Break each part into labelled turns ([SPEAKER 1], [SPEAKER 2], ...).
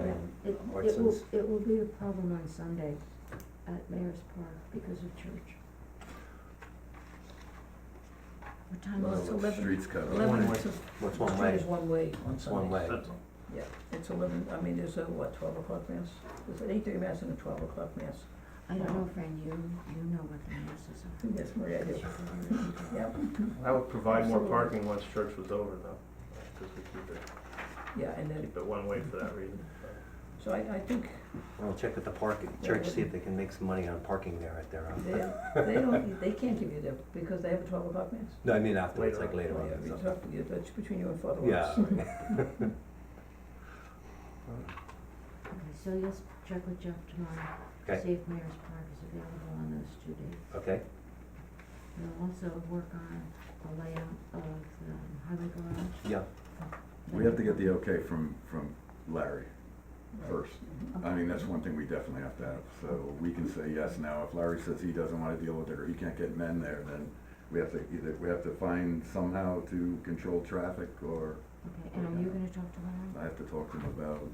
[SPEAKER 1] It, it will,
[SPEAKER 2] Watson's.
[SPEAKER 1] it will be a problem on Sunday at Mayor's Park because of church. What time
[SPEAKER 3] Well,
[SPEAKER 1] is it?
[SPEAKER 3] the
[SPEAKER 4] eleven-
[SPEAKER 3] Streets cut off.
[SPEAKER 4] Eleven
[SPEAKER 2] One
[SPEAKER 4] to,
[SPEAKER 2] What's one
[SPEAKER 4] train
[SPEAKER 2] way?
[SPEAKER 4] is one way on
[SPEAKER 2] It's one
[SPEAKER 4] Sunday.
[SPEAKER 2] way.
[SPEAKER 5] That's all.
[SPEAKER 4] Yeah, it's eleven, I mean, there's a, what, twelve o'clock mass? There's an eight-thirty mass and a twelve o'clock mass.
[SPEAKER 1] I don't know, Fran, you, you know what the masses
[SPEAKER 4] I think that's Maria,
[SPEAKER 1] are.
[SPEAKER 4] do. Yep,
[SPEAKER 5] That would provide more
[SPEAKER 4] Absolutely.
[SPEAKER 5] parking once church was over though, because we keep it,
[SPEAKER 4] yeah, and then,
[SPEAKER 5] keep it one way for that reason.
[SPEAKER 4] so I, I think
[SPEAKER 2] I'll check with the parking, church, see if they can make some money on parking there at their,
[SPEAKER 4] they,
[SPEAKER 2] own.
[SPEAKER 4] they don't, they can't give you the, because they have a twelve o'clock mass.
[SPEAKER 2] no, I mean afterwards, like
[SPEAKER 5] Later
[SPEAKER 2] later on
[SPEAKER 4] Yeah,
[SPEAKER 2] or
[SPEAKER 4] we
[SPEAKER 2] something.
[SPEAKER 4] talked, yeah, that's between you and Father
[SPEAKER 2] Yeah,
[SPEAKER 4] Ross.
[SPEAKER 2] right.
[SPEAKER 1] Okay, so you'll s- check with Jeff tomorrow.
[SPEAKER 2] Okay.
[SPEAKER 1] See if Mayor's Park is available on those two days.
[SPEAKER 2] okay,
[SPEAKER 1] We'll also work on a layout of the highway garage.
[SPEAKER 2] yeah,
[SPEAKER 3] We have to get the okay from, from Larry first. I mean, that's one thing we definitely have to have, so we can say yes now. If Larry says he doesn't wanna deal with it or he can't get men there, then we have to either, we have to find somehow to control traffic or
[SPEAKER 1] Okay, and are you gonna talk to Larry?
[SPEAKER 3] I have to talk to him about
[SPEAKER 1] Okay.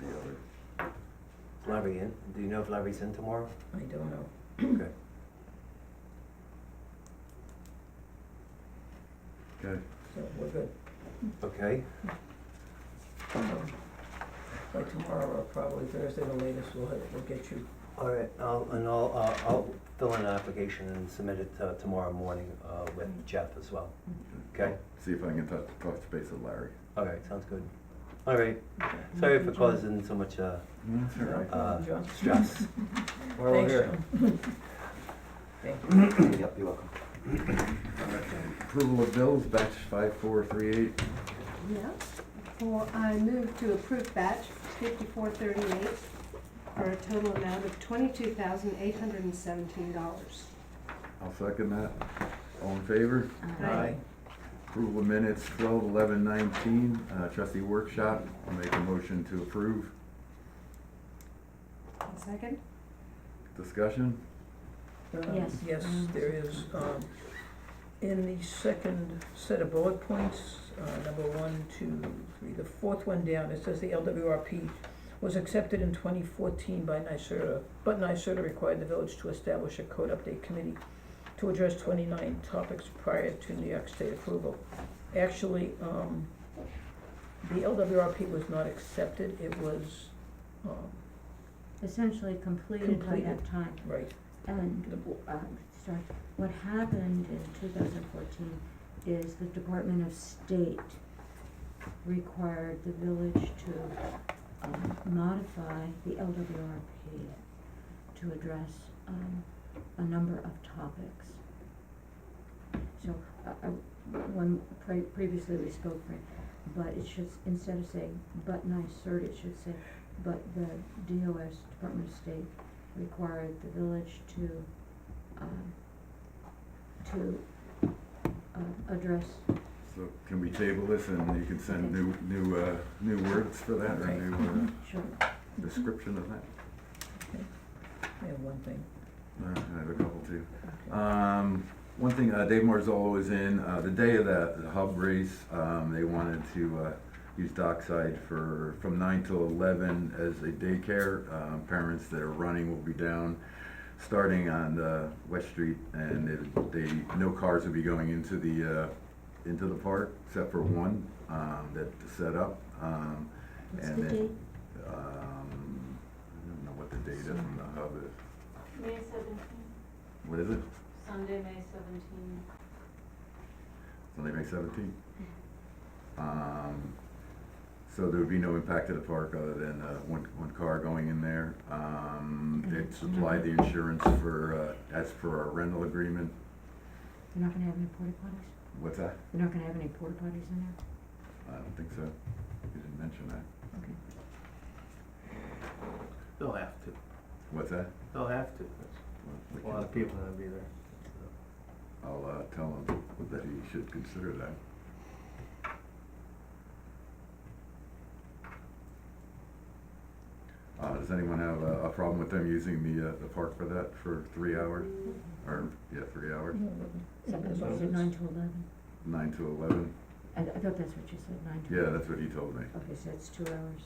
[SPEAKER 3] the other.
[SPEAKER 2] Larry in, do you know if Larry's in tomorrow?
[SPEAKER 4] I don't know.
[SPEAKER 2] Okay,
[SPEAKER 3] Okay,
[SPEAKER 4] So we're good.
[SPEAKER 2] okay,
[SPEAKER 4] Um, By tomorrow, or probably Thursday, the latest, we'll, have- we'll get you,
[SPEAKER 2] all right, I'll, and I'll, uh, I'll fill in an application and submit it uh, tomorrow morning uh,
[SPEAKER 4] Mm-hmm.
[SPEAKER 2] with Jeff as well, okay?
[SPEAKER 3] see if I can touch, touch base with Larry.
[SPEAKER 2] All right, sounds good. All right, sorry for causing so much uh,
[SPEAKER 3] That's all right.
[SPEAKER 2] uh,
[SPEAKER 4] John.
[SPEAKER 2] stress. We're all
[SPEAKER 4] Thanks,
[SPEAKER 2] here.
[SPEAKER 4] John. Thank you.
[SPEAKER 2] Yep, you're welcome.
[SPEAKER 3] Approval of bills, batch five, four, three, eight.
[SPEAKER 6] Yeah, for, I move to approve batch fifty-four thirty-eight for a total amount of twenty-two thousand eight hundred and seventeen dollars.
[SPEAKER 3] I'll second that. All in favor? Approval of minutes, twelve, eleven, nineteen, uh, trustee workshop. I'll make a motion to approve.
[SPEAKER 6] One second?
[SPEAKER 3] Discussion?
[SPEAKER 4] Um,
[SPEAKER 1] Yes.
[SPEAKER 4] Yes,
[SPEAKER 1] Um,
[SPEAKER 4] there is, um, in the second set of bullet points, uh, number one, two, three, the fourth one down, it says the LWRP was accepted in twenty fourteen by NYSERDA, but NYSERDA required the village to establish a code update committee to address twenty-nine topics prior to New York State approval. Actually, um, the LWRP was not accepted, it was, um,
[SPEAKER 1] Essentially completed by
[SPEAKER 4] Completed.
[SPEAKER 1] that time.
[SPEAKER 4] right,
[SPEAKER 1] And,
[SPEAKER 4] the,
[SPEAKER 1] uh, sorry, what happened in two thousand fourteen is the Department of State required the village to, um, modify the LWRP to address, um, a number of topics. So, uh, uh, when, pre- previously we spoke, Fran, but it should, instead of saying, but NYSERD, it should say, but the DOS, Department of State, required the village to, um, to, uh, address,
[SPEAKER 3] So can we table this and you can send new, new, uh, new words for that or new
[SPEAKER 1] sure,
[SPEAKER 3] uh, description of that?
[SPEAKER 4] I have one thing.
[SPEAKER 3] All right, I have a couple too. Um, one thing, uh, Dave Marzolo was in, uh, the day of the, the hub race, um, they wanted to, uh, use Dockside for, from nine till eleven as a daycare. Um, parents that are running will be down, starting on, uh, West Street, and it- they, no cars will be going into the, uh, into the park, except for one, um, that set up, um,
[SPEAKER 1] what's
[SPEAKER 3] and
[SPEAKER 1] the
[SPEAKER 3] then,
[SPEAKER 1] date?
[SPEAKER 3] um, I don't know what the date is from the hub is.
[SPEAKER 7] May seventeen,
[SPEAKER 3] What is it?
[SPEAKER 7] Sunday, May seventeen.
[SPEAKER 3] Sunday, May seventeenth. Um, so there would be no impact to the park other than, uh, one, one car going in there. Um, it supplied the insurance for, uh, as per our rental agreement.
[SPEAKER 1] They're not gonna have any porta potties?
[SPEAKER 3] What's that?
[SPEAKER 1] They're not gonna have any porta potties in there?
[SPEAKER 3] I don't think so. You didn't mention that.
[SPEAKER 1] Okay.
[SPEAKER 5] They'll have to,
[SPEAKER 3] What's that?
[SPEAKER 5] they'll have to,
[SPEAKER 3] We
[SPEAKER 5] there's a lot of
[SPEAKER 3] can-
[SPEAKER 5] people that'll be there.
[SPEAKER 3] I'll, uh, tell him that he should consider that. Uh, does anyone have a, a problem with them using the, uh, the park for that for three hours? Or, yeah, three
[SPEAKER 4] 嗯
[SPEAKER 3] hours,
[SPEAKER 1] Something,
[SPEAKER 4] Yeah,
[SPEAKER 1] was it nine to eleven?
[SPEAKER 3] nine to eleven?
[SPEAKER 1] I, I thought that's what you said, nine to
[SPEAKER 3] Yeah,
[SPEAKER 1] eleven.
[SPEAKER 3] that's what he told me.
[SPEAKER 1] Okay, so it's two hours.